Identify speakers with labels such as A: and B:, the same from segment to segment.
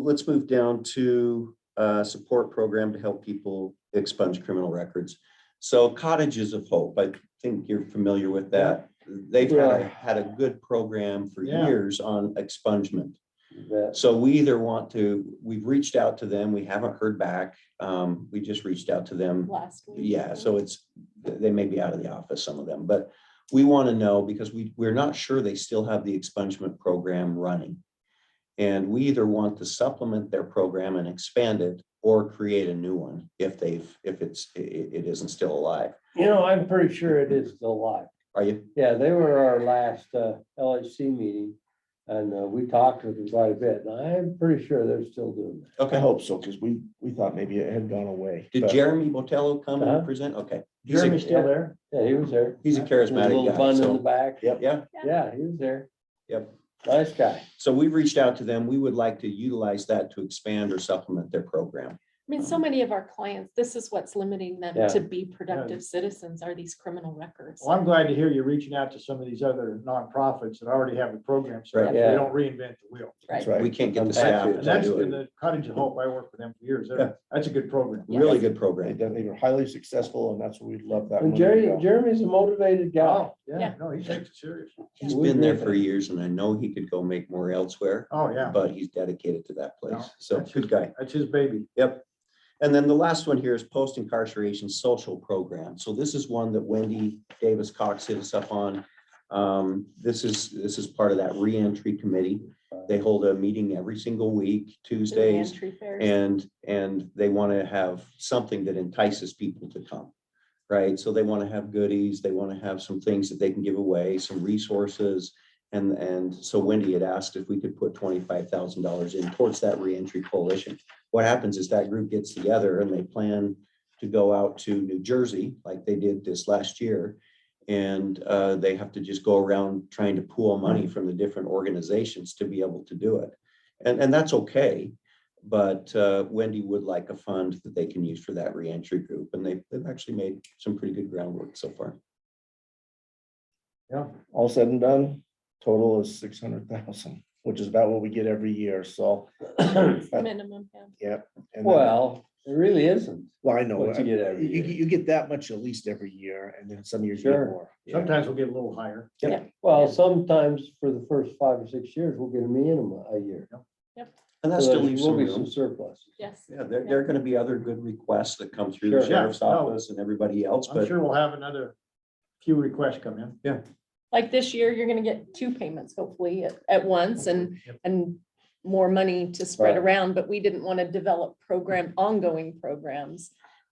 A: let's move down to uh, support program to help people expunge criminal records. So cottages of hope, I think you're familiar with that. They've had, a-
B: Yeah.
A: had a good program for
B: Yeah.
A: years on expungement.
B: That,
A: So we either want to, we've reached out to them, we haven't heard back. Um, we just reached out to them
C: last week.
A: yeah, so it's, they may be out of the office, some of them, but we want to know because we, we're not sure they still have the expungement program running. And we either want to supplement their program and expand it or create a new one if they've, if it's, i- i- it isn't still alive.
B: you know, I'm pretty sure it is still live.
A: Are you?
B: Yeah, they were our last uh, LHC meeting and uh, we talked with them quite a bit. And I'm pretty sure they're still doing that.
D: I
A: Okay.
D: hope so, because we, we thought maybe it had gone away.
A: Did
D: but-
A: Jeremy Botello come
B: Uh-huh.
A: and present? Okay. He's a-
B: Jeremy's still there? Yeah, he was there.
A: He's a
B: With a
A: charismatic
B: Little
A: guy,
B: bun in the
A: so,
B: back.
D: Yep.
A: yeah.
B: Yeah, he was there.
A: Yep.
B: Nice guy.
A: So we reached out to them. We would like to utilize that to expand or supplement their program.
C: I mean, so many of our clients, this is what's limiting
B: Yeah.
C: them to be productive citizens are these criminal records.
E: Well, I'm glad to hear you're reaching out to some of these other nonprofits that already have a program, so
A: Right.
E: that they
B: Yeah.
E: don't reinvent the wheel.
D: That's
C: Right.
A: We
D: right.
A: can't get the
B: And
A: staff.
E: And that's
A: to do
E: the
A: it.
E: the Cottage of Hope, I worked with them for years, They're-
A: Yeah.
E: that's a good program.
A: Really good
D: They
A: program.
D: done- they were highly successful and that's what we love that.
B: And
D: one to
B: Jerry,
D: go.
B: Jeremy's a motivated guy.
E: Oh, yeah,
C: Yeah.
E: no, he takes it serious.
A: He's
B: We
A: been there
B: agree.
A: for years and I know he could go make more elsewhere,
E: Oh, yeah,
A: but he's dedicated to that place.
E: No,
A: So
E: that's
A: good guy.
E: that's his baby.
A: Yep. And then the last one here is post incarceration social program. So this is one that Wendy Davis Cox hit us up on. Um, this is, this is part of that reentry committee. They hold a meeting every single week,
C: Through the
A: Tuesdays.
C: entry fairs.
A: And, and they want to have something that entices people to come, right? So they want to have goodies, they want to have some things that they can give away, some resources. And, and so Wendy had asked if we could put twenty-five thousand dollars in towards that reentry coalition. What happens is that group gets together and they plan to go out to New Jersey, like they did this last year. And uh, they have to just go around trying to pool money from the different organizations to be able to do it. And, and that's okay. But uh, Wendy would like a fund that they can use for that reentry group, and they've, they've actually made some pretty good groundwork so far.
E: Yeah,
D: All said and done, total is six hundred thousand, which is about what we get every year, so.
C: It's the Minimum, yeah.
D: and then-
B: Well, it really isn't.
D: Well, I know,
B: What you
D: I-
B: get every
D: you,
B: year.
D: you get that much at least every year and then some years you get
B: Sure.
D: more. yeah.
E: sometimes we'll get a little higher.
B: Well, sometimes for the first five or six years, we'll get a minimum a year.
A: And that
B: So
A: still
B: there
A: leaves some
B: will be some
A: room.
B: surplus.
C: Yes.
A: Yeah, there, there are gonna be other good requests that come through the
B: Sure.
E: Yeah,
A: sheriff's
E: no.
A: office and everybody else,
E: I'm
A: but
E: sure we'll have another few requests come in.
C: Like this year, you're gonna get two payments hopefully at, at once and,
E: Yep.
C: and more money to spread
B: Right.
C: around, but we didn't want to develop program, ongoing programs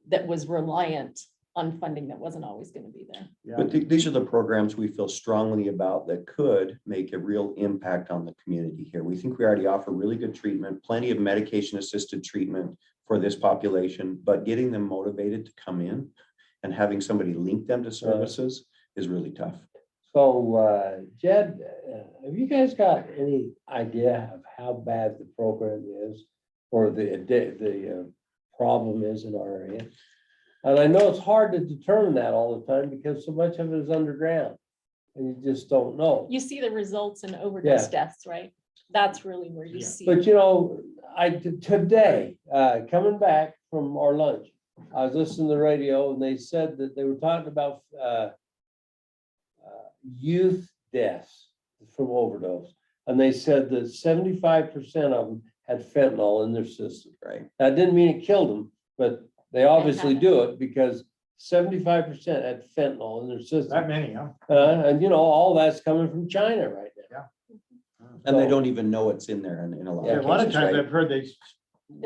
C: that was reliant on funding that wasn't always gonna be there.
E: Yeah,
A: But th- these are the programs we feel strongly about that could make a real impact on the community here. We think we already offer really good treatment, plenty of medication assisted treatment for this population, but getting them motivated to come in and having somebody link them to services is really tough.
B: So uh, Jed, uh, have you guys got any idea of how bad the program is? Or the, addi- the uh, problem is in our area? And I know it's hard to determine that all the time because so much of it is underground. And you just don't know.
C: You see the results in overdose deaths, right? That's really where you
E: Yeah.
C: see.
B: But you know, I, t- today, uh, coming back from our lunch, I was listening to the radio and they said that they were talking about, uh, uh, youth deaths from overdose. And they said that seventy-five percent of them had fentanyl in their system.
A: Right.
B: That didn't mean it killed them, but they obviously
C: had it.
B: do it because seventy-five percent had fentanyl in their
E: that
B: system.
E: many, huh?
B: Uh, and you know, all that's coming from China right now.
A: And they
B: So-
A: don't even know it's in there in, in a lot
E: Yeah,
A: of
E: a lot of
A: cases,
E: times
A: right?
E: I've heard they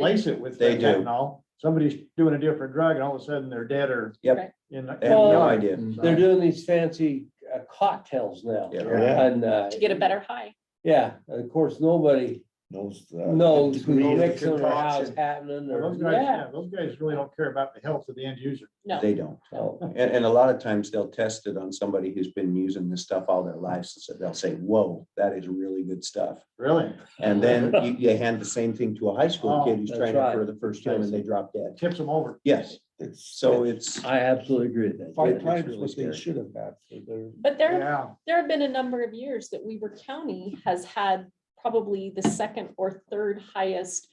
E: lace it with
A: They do.
E: fentanyl. Somebody's doing a different drug and all of a sudden they're dead or.
A: Yep.
C: Right.
E: In.
A: They have
B: Well,
A: no idea. Mm.
B: They're doing these fancy uh, cocktails now.
A: Yeah.
D: Yeah,
B: And, uh,
C: To get a better high.
B: yeah, and of course, nobody
D: knows. the
B: knows who's
D: degree of the
B: mixing or how it's
D: concoction.
B: happening
E: Well,
B: or,
E: Those guys,
B: yeah.
E: yeah, those guys really don't care about the health of the end user.
C: No.
A: They don't.
B: So,
A: And, and a lot of times they'll test it on somebody who's been using this stuff all their lives. So they'll say, whoa, that is really good stuff.
E: Really?
A: And then you, you hand the same thing to a high school
E: Oh,
A: kid who's
B: that's
A: trying it for
B: right.
A: the first time and they drop dead.
E: Tips them over.
A: Yes,
D: It's-
A: so it's,
B: I absolutely agree with that.
D: Five
A: it's
D: times
A: really
D: what they
A: scary.
D: should have had for their.
C: But there,
E: Yeah.
C: there have been a number of years that Weaver County has had probably the second or third highest